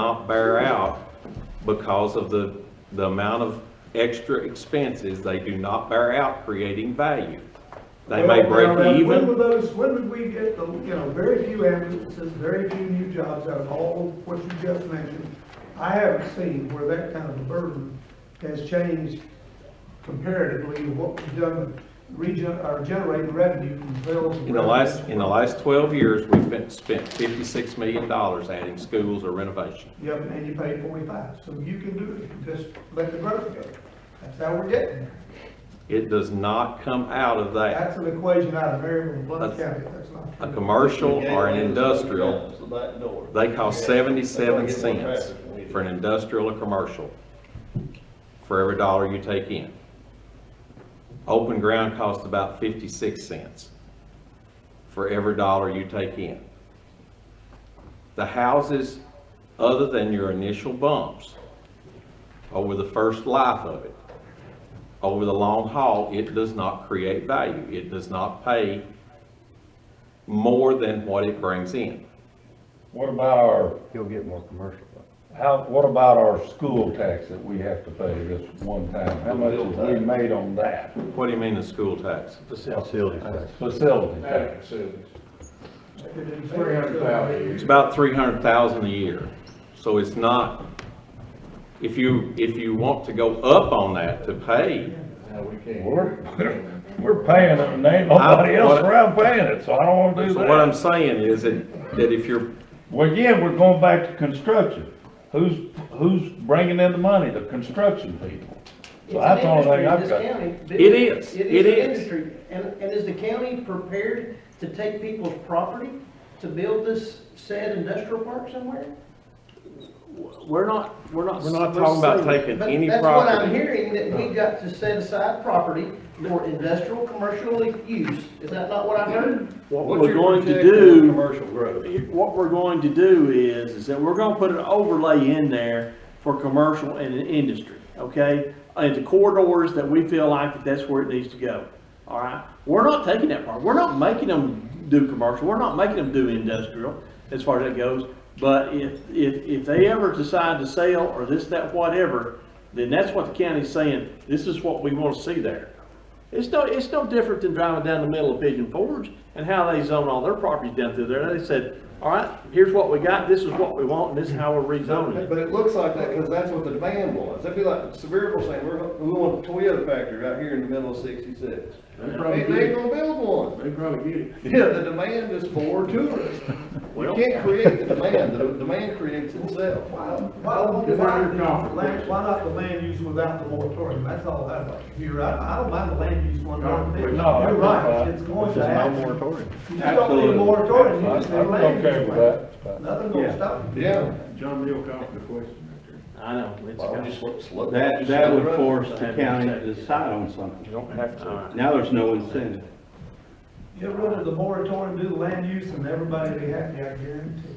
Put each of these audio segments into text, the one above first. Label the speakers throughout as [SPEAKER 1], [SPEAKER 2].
[SPEAKER 1] not bear out because of the, the amount of extra expenses. They do not bear out creating value. They may
[SPEAKER 2] Well, now, now,
[SPEAKER 1] break
[SPEAKER 2] When
[SPEAKER 1] even.
[SPEAKER 2] will those, when would we get the, you know, very few ambulances, very few new jobs out of all of what you just mentioned? I haven't seen where that kind of a burden has changed comparatively to what we've done, region, or generating revenue from bills. and
[SPEAKER 1] In the
[SPEAKER 2] revenues.
[SPEAKER 1] last, in the last twelve years, we've been, spent fifty-six million dollars adding schools or renovation.
[SPEAKER 2] Yep, and you pay forty-five, so you can do it, You just let the growth go. That's how we're getting there.
[SPEAKER 1] It does not come out of that.
[SPEAKER 2] That's an equation out of Maryland, Blount
[SPEAKER 1] That's-
[SPEAKER 2] County, that's not.
[SPEAKER 1] A
[SPEAKER 2] true.
[SPEAKER 1] commercial or an industrial
[SPEAKER 3] The back door.
[SPEAKER 1] They cost seventy-seven
[SPEAKER 3] That's why I get more
[SPEAKER 1] cents
[SPEAKER 3] traffic when we do
[SPEAKER 1] for an industrial or commercial, for every dollar you take in. Open ground costs about fifty-six cents for every dollar you take in. The houses, other than your initial bumps, over the first life of it, over the long haul, it does not create value. It does not pay more than what it brings in.
[SPEAKER 4] What about our,
[SPEAKER 5] You'll get more commercial.
[SPEAKER 4] how, what about our school tax that we have to pay this one time? How much have we made on that?
[SPEAKER 1] What do you mean the school tax?
[SPEAKER 5] Facilities tax.
[SPEAKER 4] Facility tax.
[SPEAKER 2] Three hundred thousand.
[SPEAKER 1] It's about three hundred thousand a year, so it's not, if you, if you want to go up on that to pay,
[SPEAKER 3] Now, we can't.
[SPEAKER 4] We're, we're paying it and ain't nobody else around paying it, so I don't wanna do
[SPEAKER 1] so what I'm
[SPEAKER 4] that.
[SPEAKER 1] saying is that, that if you're,
[SPEAKER 4] Well, again, we're going back to construction. Who's, who's bringing in the money? The construction people. So that's the only thing I've got.
[SPEAKER 1] It is. It is.
[SPEAKER 6] an industry. And, and is the county prepared to take people's property to build this said industrial park somewhere?
[SPEAKER 1] we're not, we're not, we're not talking about taking
[SPEAKER 6] But
[SPEAKER 1] any
[SPEAKER 6] That's what I'm
[SPEAKER 1] property. Uh-huh.
[SPEAKER 6] hearing, that we got to set aside property for industrial, commercial use. Is that not what I heard?
[SPEAKER 7] What
[SPEAKER 3] What's
[SPEAKER 7] we're
[SPEAKER 3] your
[SPEAKER 7] going to
[SPEAKER 3] projection on
[SPEAKER 7] do,
[SPEAKER 3] Commercial growth.
[SPEAKER 7] what we're going to do is, is that we're gonna put an overlay in there for commercial and industry, okay? And the corridors that we feel like that that's where it needs to go, all right? We're not taking that part, we're not making them do commercial, we're not making them do industrial, as far as that goes. But if, if, if they ever decide to sell or this, that, whatever, then that's what the county's saying, this is what we wanna see there. It's no, it's no different than driving down the middle of Pigeon Forge and how they zone all their properties down through there. They said, all right, here's what we got, this is what we want, and this is how we're rezoning it.
[SPEAKER 3] But it looks like that, because that's what the demand was. That'd be like Sevierville saying, we're, we want a Toyota factory right here in the middle of sixty-six. They they ain't gonna build one.
[SPEAKER 7] They probably get it.
[SPEAKER 3] Yeah, the demand is for tourism. You
[SPEAKER 7] Well-
[SPEAKER 3] can't create the demand, the demand creates itself.
[SPEAKER 2] Why, why, why, why not the land use without the moratorium, that's all that about, you're right, I don't mind the land use one, darn bit. you're
[SPEAKER 4] No, I'm not.
[SPEAKER 2] right, it's going
[SPEAKER 5] This is
[SPEAKER 2] to
[SPEAKER 5] no
[SPEAKER 2] happen.
[SPEAKER 5] moratorium.
[SPEAKER 2] You just don't need a moratorium, you just need a
[SPEAKER 4] I'm
[SPEAKER 2] land
[SPEAKER 4] okay
[SPEAKER 2] use
[SPEAKER 4] with
[SPEAKER 2] plan.
[SPEAKER 4] that. But-
[SPEAKER 2] Nothing gonna stop you.
[SPEAKER 3] Yeah.
[SPEAKER 8] John Neal called the question right there.
[SPEAKER 7] I know, it's
[SPEAKER 3] Well,
[SPEAKER 7] kind
[SPEAKER 3] just let- just let-
[SPEAKER 5] That,
[SPEAKER 3] just
[SPEAKER 5] that
[SPEAKER 3] let it
[SPEAKER 5] would
[SPEAKER 3] run.
[SPEAKER 5] force the county to decide on something.
[SPEAKER 4] You don't have to.
[SPEAKER 5] Now there's no incentive.
[SPEAKER 2] Get rid of the moratorium, do the land use, and everybody be happy, I guarantee.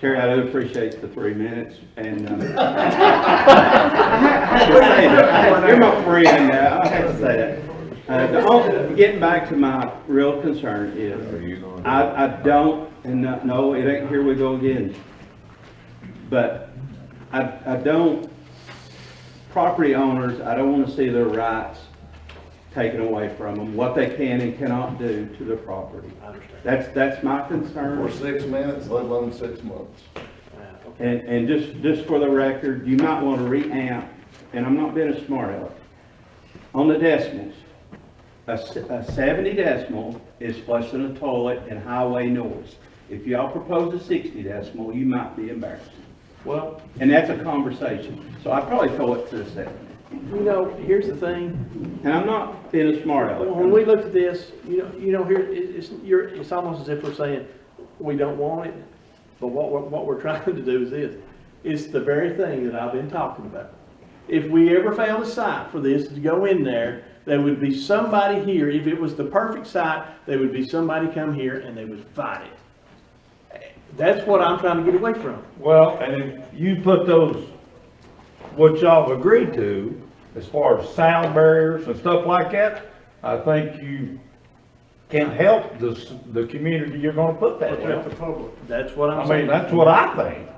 [SPEAKER 5] Terry, I do appreciate the three minutes and, uh, you're my friend now, I have to say that. Uh, the only- Getting back to my real concern is, I, I don't, and not- no, it ain't, here we go again. But I, I don't, property owners, I don't want to see their rights taken away from them, what they can and cannot do to their property.
[SPEAKER 7] I understand.
[SPEAKER 5] That's, that's my concern.
[SPEAKER 3] For six minutes, let alone six months.
[SPEAKER 7] Yeah, okay.
[SPEAKER 5] And, and just, just for the record, you might want to re-amp, and I'm not being a smart aleck, on the decimals. A, s- a seventy decimal is flushing a toilet and highway noise. If y'all propose a sixty decimal, you might be embarrassed.
[SPEAKER 7] Well,
[SPEAKER 5] And that's a conversation, so I probably throw it to the seventy.
[SPEAKER 7] you know, here's the thing,
[SPEAKER 5] And I'm not being a smart
[SPEAKER 7] when we
[SPEAKER 5] aleck.
[SPEAKER 7] looked at this, you know, you know, here, it, it's, you're, it's almost as if we're saying, we don't want it, but what, we're- what we're trying to do is this, it's the very thing that I've been talking about. If we ever found a site for this to go in there, there would be somebody here, if it was the perfect site, there would be somebody come here and they would fight it. That's what I'm trying to get away from.
[SPEAKER 4] Well, and if you put those, what y'all have agreed to, as far as sound barriers and stuff like that, I think you can help the, s- the community you're gonna put that in.
[SPEAKER 7] That's what I'm
[SPEAKER 4] I
[SPEAKER 7] saying.
[SPEAKER 4] mean, that's what I think.